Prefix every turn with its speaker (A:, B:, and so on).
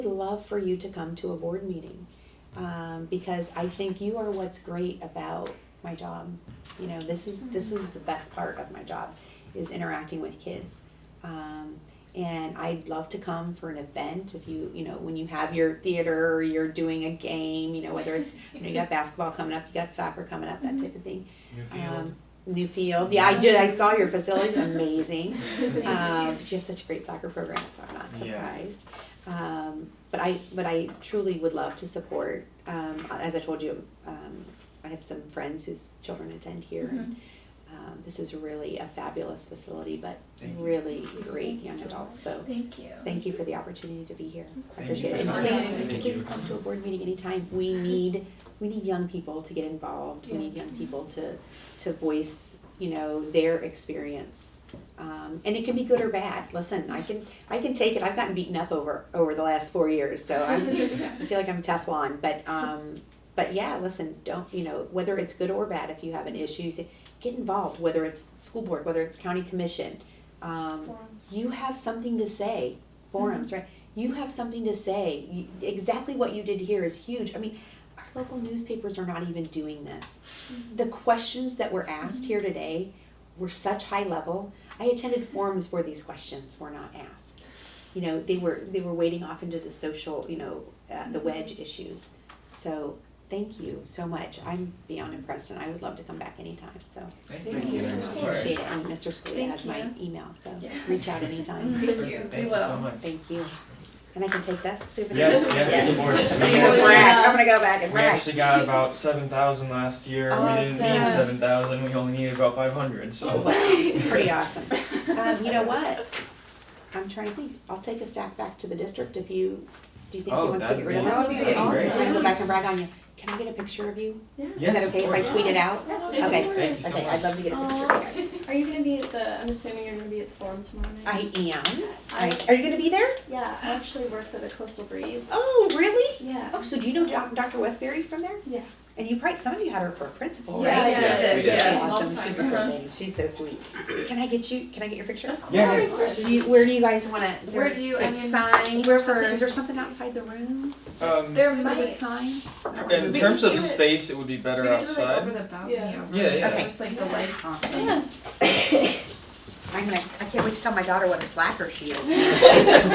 A: would love for you to come to a board meeting um, because I think you are what's great about my job. You know, this is this is the best part of my job is interacting with kids. Um, and I'd love to come for an event if you you know when you have your theater or you're doing a game. You know whether it's you, know, you got basketball coming up, you got soccer coming up, that type of thing. Um, Newfield, yeah, I did. I saw your facility's amazing. Um, you have such a great soccer program, so I'm not
B: Yeah.
A: surprised. Um, but I, but I truly would love to support. Um, as I told you, um, I have some friends whose children attend here. And, um, this is really a fabulous facility, but
B: Mm-hmm. Thank you.
A: really great
C: Thank you
A: young
C: so
A: adults. So
C: Thank you.
A: thank you for the opportunity to be here. I
B: Thank you
A: appreciate it.
B: for
A: And
C: coming.
A: please,
B: Thank
A: please
B: you.
A: come to a board meeting anytime. We need we need young people to get involved. We need
C: Yes.
A: young people to to voice you know their experience. Um, and it can be good or bad. Listen, I can I can take it. I've gotten beaten up over over the last four years, so I'm, I feel like I'm Teflon. But um, but yeah, listen, don't you know whether it's good or bad. If you have an issue, say, get involved. Whether it's school board, whether it's county commission, um,
C: Forums.
A: you have something to say forums right you have something to say you, exactly what you did here is huge i mean our local newspapers are not even doing this the questions that were asked here today were such high level i attended forums where these questions were not asked you know they were they were wading off into the social you know uh, the wedge issues so thank you so much i'm beyond impressed and i would love to come back anytime so
B: Thank
C: Thank you.
B: you very
C: Of
B: much.
C: course.
A: appreciate it and mr Scalia
C: Thank
A: has my email so
C: Yeah.
A: reach out anytime
C: Thank you. We
B: Thank you so
C: will.
B: much.
A: Thank you. And I can take this souvenir?
B: Yes, yes, of course.
A: I'm
B: We
A: gonna
C: Yeah.
B: actually-
A: brag. I'm gonna go back and
B: We
A: brag.
B: actually got about seven thousand last year, we didn't need
C: Awesome.
B: seven thousand, we only needed about five hundred, so.
A: Oh, Wow, Pretty awesome. Um, you know what? I'm trying to think. I'll take a stack back to the district if you, do you think he
B: Oh,
A: wants to
B: that'd
A: get rid of
B: be-
A: that?
C: That would be
A: I'm
C: awesome.
A: gonna go back and brag on you. Can I get a picture of you? Is
B: Yes,
A: that
B: of
A: okay if I
B: course.
A: tweet it out?
C: Yes,
A: of Okay.
B: course. Thank you so
A: Okay, I'd love to get a picture of you.
D: Are you gonna be at the? I'm assuming you're gonna be at the forum tomorrow
A: I
D: night.
A: am.
D: I-
A: I- Are you gonna be there?
D: yeah, I actually work for the Coastal Breeze.
A: Oh, really?
D: Yeah.
A: Oh, so do you know Doc- Dr. Westbury from there?
D: Yeah.
A: And you probably, some of you had her for a principal,
C: Yeah,
A: right?
C: yeah,
B: Yeah, we did.
C: yeah.
A: Awesome.
C: Long
A: She's a
C: time.
A: good lady. She's so sweet. Can I get you? Can I get your picture?
D: Of
B: Yeah.
D: course.
A: Do you, where do you guys want to?
C: Where do you- I mean,
A: sign?
C: we're
A: something-
C: for-
A: Is there something outside the room?
B: Um,
C: There
A: Some good
C: might.
A: sign.
B: in
C: We
B: terms
C: could
B: of
C: do it-
B: space, it would be
C: We
B: better
C: could do it like over
B: outside.
C: the balcony
D: Yeah.
C: over.
B: Yeah, yeah.
A: Okay.
C: With like the lights on.
D: Yes.
A: I'm gonna. I can't wait to tell my daughter what a slacker she is.